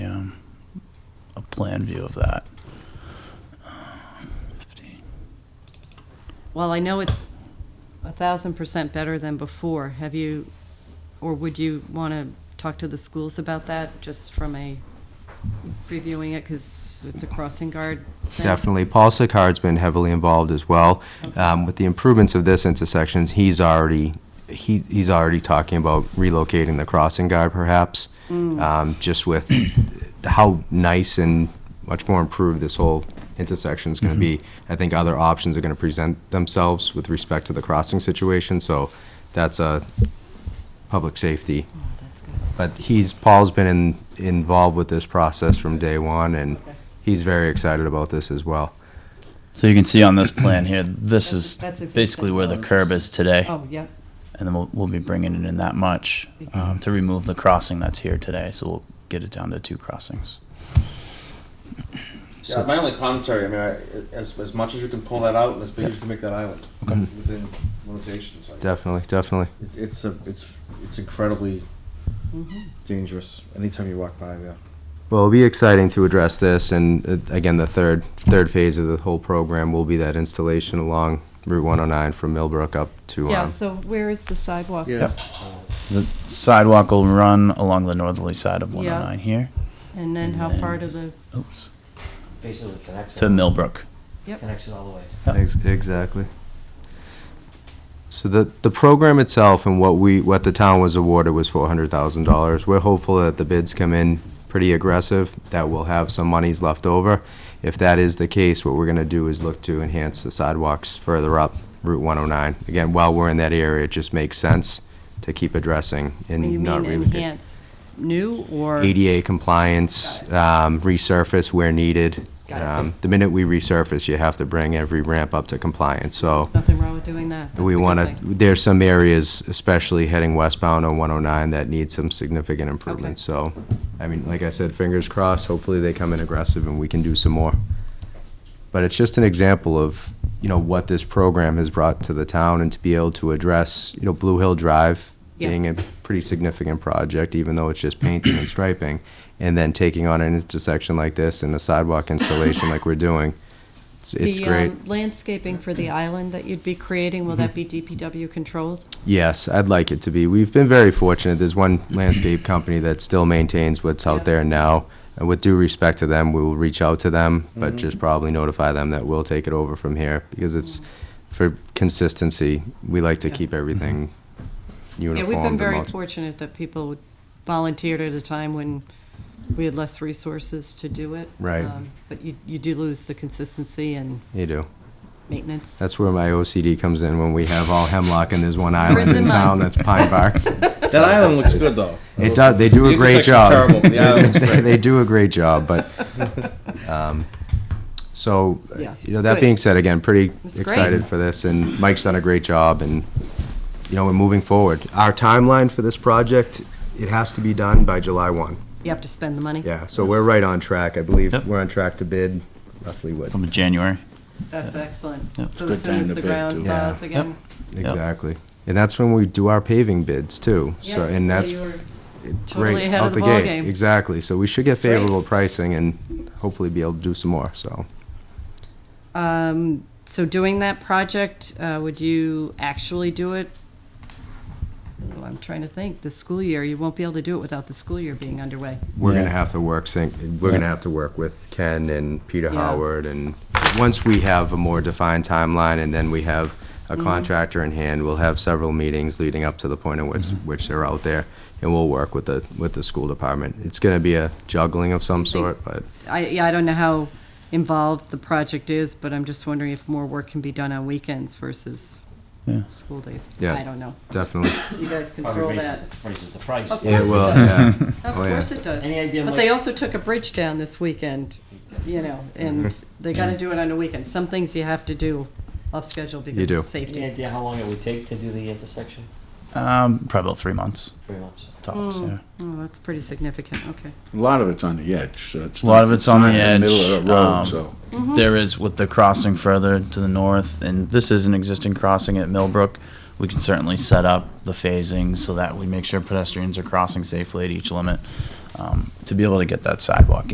plan view of that. Uh, Well, I know it's a thousand percent better than before. Have you, or would you want to talk to the schools about that, just from a previewing it, because it's a crossing guard? thing? Definitely. Paul Sicard's been heavily involved as well. Um, With the improvements of this intersection, he's already, he, he's already talking about relocating the crossing guard perhaps, Um, just with how nice and much more improved this whole intersection's going to be. I think other options are going to present themselves with respect to the crossing situation, so that's a public safety. Oh, that's good. But he's, Paul's been in, involved with this process from day one, and Okay. he's very excited about this as well. So you can see on this plan here, this That's- is that's existing basically where the road. curb is today. Oh, yep. And then we'll, we'll be bringing it in that much um, to remove the crossing that's here today. So we'll get it down to two crossings. Yeah, my only commentary, I mean, I, as, as much as you can pull that out, and as big as you can make that island, within limitations. like, Definitely, definitely. It's, it's a, it's, it's incredibly Mm-hmm. dangerous, anytime you walk by there. Well, it'll be exciting to address this, and uh, again, the third third phase of the whole program will be that installation along Route 109 from Millbrook up to. Um, Yeah, so where is the sidewalk? Yeah, Oh, So the sidewalk will run along the northerly side of 109 here. And then how And far to then- the, Oops. Basically connects. To it- Millbrook. Connects it all the way. Ex- exactly. So the the program itself and what we what the town was awarded was four hundred thousand dollars. We're hopeful that the bids come in pretty aggressive, that we'll have some monies left over. If that is the case, what we're gonna do is look to enhance the sidewalks further up Route one oh nine. Again, while we're in that area, it just makes sense to keep addressing you and not mean really. enhance new or? ADA compliance, um, resurface where needed. Got it. Um, The minute we resurface, you have to bring every ramp up to compliance, so. There's nothing wrong with doing that. We want to, there's some areas, especially heading westbound on 109, that need some significant improvements. So, I mean, like I said, fingers crossed, hopefully they come in aggressive and we can do some more. But it's just an example of, you know, what this program has brought to the town and to be able to address, you know, Blue Hill Drive Yeah. being a pretty significant project, even though it's just painting and striping, and then taking on an intersection like this and a sidewalk installation like we're doing. It's- It's The, great. um, Landscaping for the island that you'd be creating, will that be Mm-hmm. DPW controlled? Yes, I'd like it to be. We've been very fortunate. There's one landscape company that still maintains what's Yeah. out there now. And with due respect to them, we will reach out to them, Mm-hmm. but just probably notify them that we'll take it over from here because it's for consistency. We like to Yeah. Mm-hmm. keep everything uniform. Yeah, we've been but very multi- fortunate that people volunteered at a time when we had less resources to do it. Right. Um, But you, you do lose the consistency and You do. maintenance. That's where my OCD comes in when we have all hemlock and there's one island Prison in town month. that's pine bark. that island looks good, though. It does. They do The a great intersection's job. terrible, but the island looks they, great. they do a great job, but um, so uh, Yeah. you know that Good. being said, again, pretty It's great. excited for this, and Mike's done a great job, and you know we're moving forward. Our timeline for this project, it has to be done by July one. You have to spend the money. Yeah, so we're right on track. I believe Yep. we're on track to bid roughly what From January. That's excellent. Yeah, it's So a as good soon time as to the bid, ground too. Yeah. thaws again. exactly, and that's when we do our paving bids too. So Yeah, and well, that's you were- Great, Totally ahead out of the gate. ballgame. Exactly. So we should get Great. favorable pricing and hopefully be able to do some more. So Um, so doing that project, uh, would you actually do it? Oh, I'm trying to think, the school year, you won't be able to do it without the school year being underway. we're Yeah. gonna have to work. Sync, we're Yeah. gonna have to work with Ken and Peter Yeah. Howard, and once we have a more defined timeline, and then we have a Mm-hmm. contractor in hand, we'll have several meetings leading up to the point at which Mm-hmm. which they're out there, and we'll work with the with the school department. It's gonna be a juggling of some think- sort, but I, yeah, I don't know how involved the project is, but I'm just wondering if more work can be done on weekends versus Yeah. school days. Yeah. I don't know. definitely You guys Probably control that. raises- Raises the price. Of it course it will. does. Yeah. Of Oh, yeah. course it does. Any idea, But Mike? they also took a bridge down this weekend, you know, and Mm-hmm. they gotta do it on a weekend. Some things you have to do off schedule because do. of Any safety. idea how long it would take to do the intersection? Um, probably about three months Three months. tops. Yeah. Oh, that's pretty significant, okay. A lot of it's on the edge, so it's. A lot not- of it's on not the in Middle edge, of the um, road, so. There is with the crossing further to the north, and this is an existing crossing at Millbrook. We can certainly set up the phasing so that we make sure pedestrians are crossing safely at each limit um, to be able to get that sidewalk